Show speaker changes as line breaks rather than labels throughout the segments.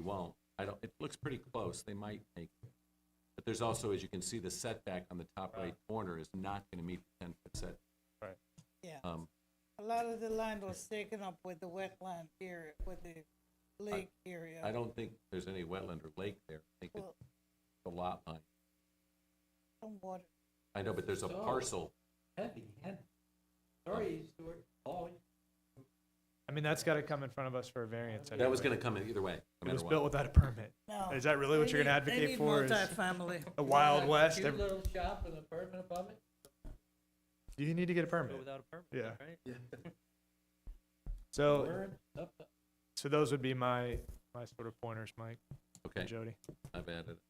won't. I don't, it looks pretty close, they might make it. But there's also, as you can see, the setback on the top right corner is not gonna meet the ten-foot set.
Yeah,
Um,
a lot of the land was taken up with the wetland area, with the lake area.
I don't think there's any wetland or lake there, I think it's
Well,
the lot line.
some water.
I know, but there's a
So-
parcel,
heavy, heavy. Sorry, Stuart, all,
I mean, that's gotta come in front of us for a variance.
that was
anyway.
gonna come in either way, no
It was
matter
built
what.
without a permit.
No.
Is that really
Oh, They
what you're gonna
need- they
advocate
need
for? Is
Multifamily.
a Wild
Like,
West?
Cute
every-
little shop with a permanent apartment?
Do you need to get a permit?
without a
Yeah.
permit, right?
So,
Burn up the-
so those would be my, my sort of pointers, Mike and
Okay,
Jody.
I've added.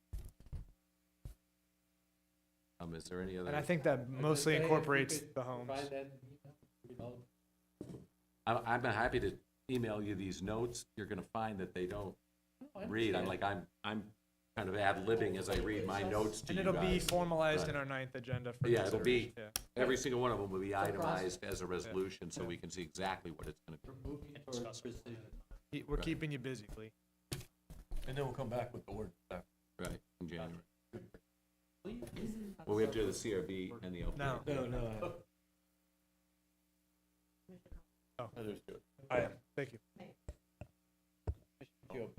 Um, is there any other?
And I think that
I'd
mostly
say if you
incorporates
could
the homes.
provide that, you know, you know,
I'm, I'm happy to email you these notes. You're gonna find that they don't
I
read. I'm
understand.
like, I'm, I'm kind of ad-libbing as I read my notes to
And
you
it'll be
guys.
formalized in
Right.
our ninth agenda for
Yeah, it'll be-
consideration. Yeah.
Every single one of them will be
process.
itemized as a resolution, so we can see exactly what it's gonna be.
We're moving towards precision.
He- We're
Right.
keeping you busy, Lee.
And then we'll come back with the word.
Right, in January.
Please, this is not
Well, we have to do the
something-
CRB and the LPA.
No,
No.
no.
Oh.
Others do it.
I am. Thank you.
Thank you.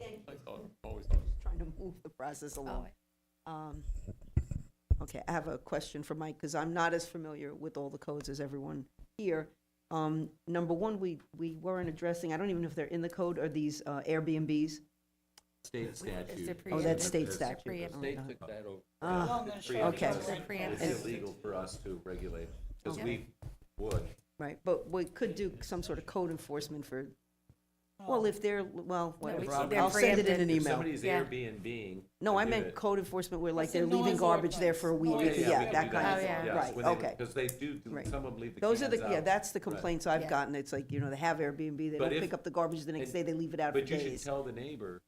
Always.
trying to move the process
Oh,
along. Um, Okay, I have a question for Mike, because I'm not as familiar with all the codes as everyone here. Um, Number one, we, we weren't addressing, I don't even know if they're in the code, are these uh, Airbnbs?
State statute.
Oh, that's state
It's-
statute.
The state took that over.
Ah,
Long and short
okay.
of it.
It's illegal for us to regulate, because we would.
Right, but we could do some sort of code enforcement for,
Oh.
well, if they're, well, whatever, I'll-
they're
I'll send it in an
If
email.
somebody's
Yeah.
Airbnb.
No, I
do
meant
it-
code enforcement where like
It's a
they're leaving
noise
garbage there for a
ordinance.
week,
Noise,
yeah, that kind of
Oh, yeah.
thing, right, okay.
Because they do, do-
Right.
some of them leave the cans
Those are
out.
the, yeah, that's the
Right.
complaints I've
Yeah.
gotten, it's like, you know, they have Airbnb, they
But
don't
if-
pick up the garbage the next
and-
day, they leave it out for
But you should
days.
tell the neighbor,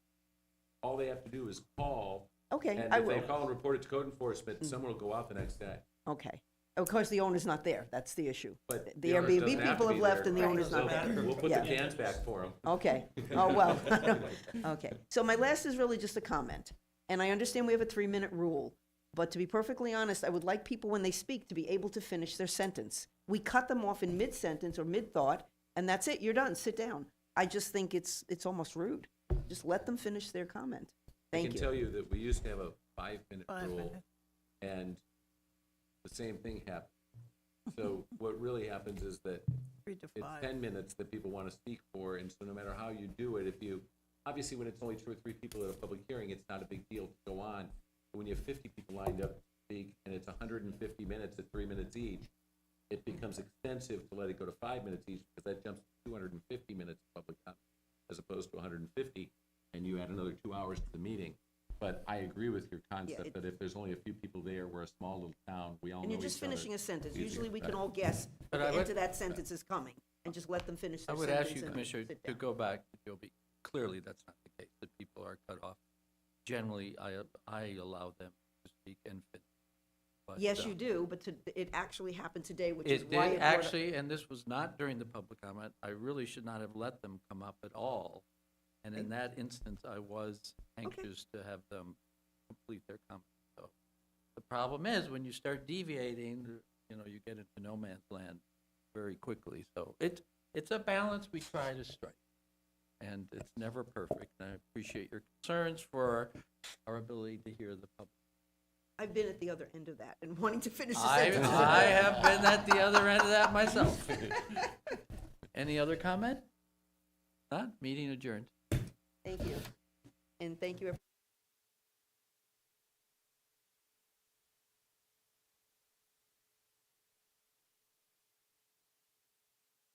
all they have to do is call,
Okay,
and
I
if they
will, Hmm.
call and report it to code enforcement, someone will go out the next day.
okay. Of course, the owner's not there, that's the issue.
But
The
owner
Airbnb
doesn't have
people
to
have
be
left
there.
and the
Right.
owner's not
Doesn't
there.
We'll put the
Yeah.
cans back for them.
Okay, oh, well, okay. So my last is really just a comment, and I understand we have a three-minute rule, but to be perfectly honest, I would like people, when they speak, to be able to finish their sentence. We cut them off in mid-sentence or mid-thought, and that's it, you're done, sit down. I just think it's, it's almost rude. Just let them finish their comment.
I
Thank you.
can tell you that we used to have a five-minute
Five
rule,
minutes.
and the same thing happened. So what really happens is that
Three to
it's
five.
ten minutes that people want to speak for, and so no matter how you do it, if you, obviously, when it's only two or three people at a public hearing, it's not a big deal to go on. But when you have fifty people lined up to speak, and it's hundred and fifty minutes at three minutes each, it becomes expensive to let it go to five minutes each, because that jumps to two hundred and fifty minutes of public comment, as opposed to hundred and fifty, and you add another two hours to the meeting. But I agree with your concept
it-
that if there's only a few people there, we're a small little town, we all know
And
each other.
you're just finishing a sentence.
easier,
Usually, we
right.
can all guess
But
what
I
the
would-
end of that sentence is coming, and just let them finish
I
their
would
sentence.
ask you,
and
Commissioner,
sit
to
down.
go back to Joby. Clearly, that's not the case, that people are cut off. Generally, I, I allow them to speak and finish. but,
Yes,
uh,
you do, but to, it actually happened today, which is
It
why.
did,
brought up-
actually, and this was not during the public comment. I really should not have let them come up at all. And in that instance, I was anxious to have them complete their comment, so. The problem is, when you start deviating, you know, you get into no man's land very quickly, so it, it's a balance we try to strike. And it's never perfect, and I appreciate your concerns for our ability to hear the public.
I've been at the other end of that and wanting to finish the
I,
sentence.
I have been at the other end of that myself. Any other comment? Not, meeting adjourned.
Thank you. And thank you, everyone.